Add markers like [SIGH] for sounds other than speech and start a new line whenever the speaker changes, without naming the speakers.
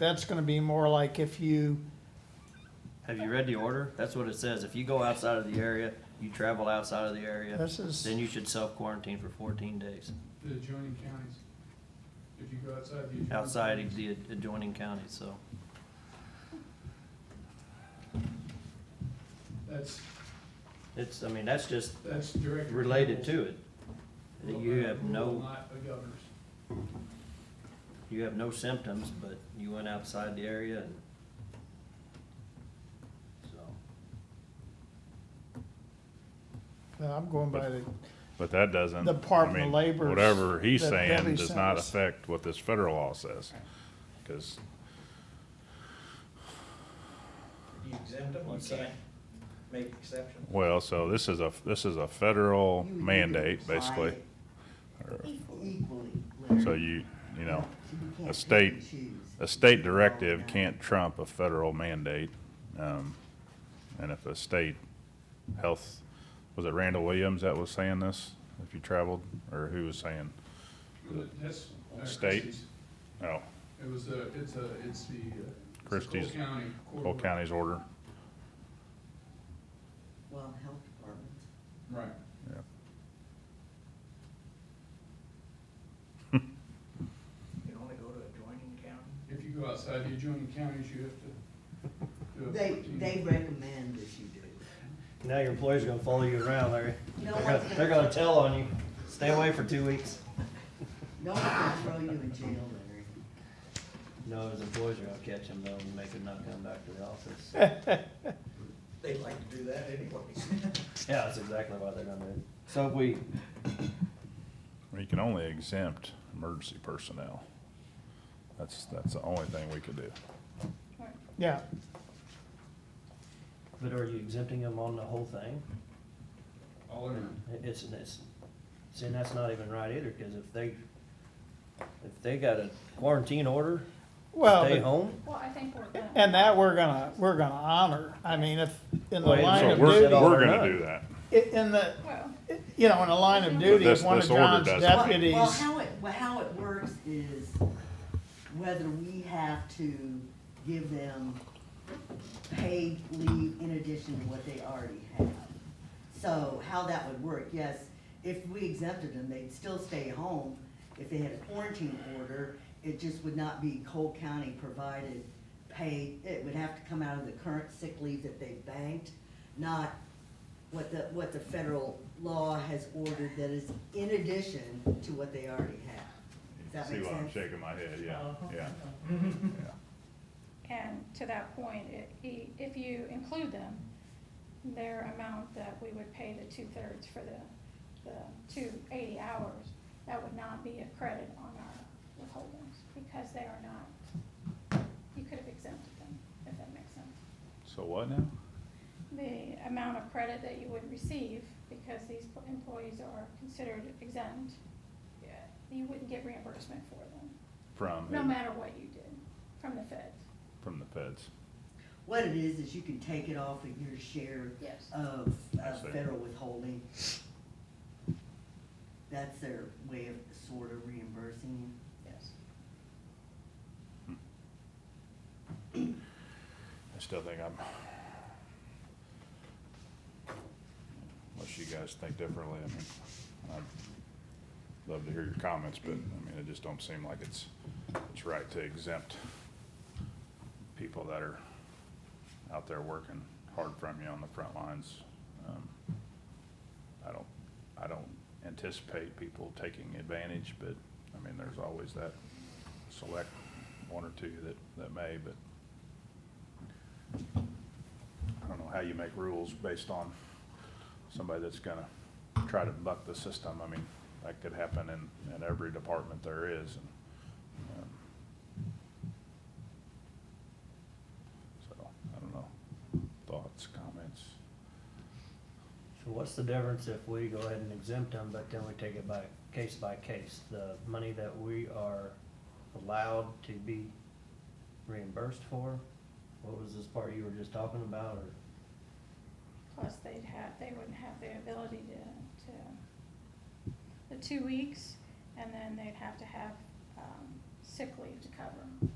That's gonna be more like if you,
Have you read the order? That's what it says. If you go outside of the area, you travel outside of the area,
this is,
then you should self-quarantine for fourteen days
The adjoining counties. If you go outside the. adjoining
outside of
counties.
the adjoining counties, so.
That's,
It's, I mean, that's just
that's direct.
related to it.
Well,
You
uh,
have
well,
no,
Not the governor's.
you have no symptoms, but you went outside the area and. So,
uh, I'm going by the,
But that doesn't.
The Department of
I mean,
Labor's-
Whatever he's
the
saying
Debbie
does not
sends.
affect what this federal law says, because
You exempt them,
What's
you
that?
can't make exceptions.
Well, so this is a, this is a federal
You would
mandate,
apply
basically.
it
Or-
Equally, Larry.
So you, you know,
You can't
a
pick
state-
and choose.
a state directive can't trump a federal mandate. Um, and if a state health, was it Randall Williams that was saying this? If you traveled, or who was saying?
That's. uh,
State?
Christie's.
Oh,
It was a, it's a, it's the. uh, it's the
Christie's-
Cole County. Court
Cole
order.
County's order.
Well, health department.
Right.
You can only go to adjoining county.
If you go outside the adjoining counties, you have to. do a
They,
14
they recommend that you do. it.
now your employer's gonna follow you around, Larry.
No
They're gonna,
one's
they're gonna tell on you. Stay away for two weeks.
No one's gonna throw you in jail, Larry.
No, his employees are gonna catch him though and make him not come back to the office.
They like to do that anyways. [LAUGHS]
Yeah, that's exactly why they're gonna do it. So if we,
You can only exempt emergency personnel. That's, that's the only thing we could do.
yeah,
but are you exempting them on the whole thing?
All or none.
It- It's, it's, see, and that's not even right either, cause if they, if they got a quarantine order,
well.
stay
but-
home,
Well, I think we're gonna.
And that we're gonna, we're gonna honor. I mean, if, in the
Well,
line
So
of
we're,
duty,
we're
or
gonna
none.
do that.
i- in the,
Well,
you know, in the line of
But
duty,
this-
one of
this order
John's
doesn't.
Well- Well,
deputies,
how it, well, how it works is whether we have to give them paid leave in addition to what they already have. So how that would work, yes, if we exempted them, they'd still stay home. If they had a quarantine order, it just would not be Cole County provided paid, it would have to come out of the current sick leave that they banked, not what the, what the federal law has ordered that is in addition to what they already have. Does that
See
make
why I'm
sense? Oh,
shaking my head, yeah, yeah, yeah.
and to that point, i- i- if you include them, their amount that we would pay the two-thirds for the, the two eighty hours, that would not be a credit on our withholdings, because they are not, you could have exempted them, if that makes sense.
So what now?
The amount of credit that you would receive, because these p- employees are considered exempt, yeah, you wouldn't get reimbursement for them.
From,
No
who?
matter what you did, from the feds.
from the feds.
What it is, is you can take it off of your share
Yes.
of,
I
of
see.
federal withholding. That's their way of sort of reimbursing.
Yes.
I still think I'm. Unless you guys think differently, I mean, I'd love to hear your comments, but I mean, it just don't seem like it's, it's right to exempt people that are out there working hard from you on the front lines. Um, I don't, I don't anticipate people taking advantage, but, I mean, there's always that select one or two that, that may, but I don't know how you make rules based on somebody that's gonna try to buck the system. I mean, that could happen in, in every department there is. and, um, So, I don't know. Thoughts, comments?
so what's the difference if we go ahead and exempt them, but then we take it by, case by case? The money that we are allowed to be reimbursed for? What was this part you were just talking about, or?
Plus, they'd have, they wouldn't have the ability to, to, the two weeks, and then they'd have to have, um, sick leave to cover.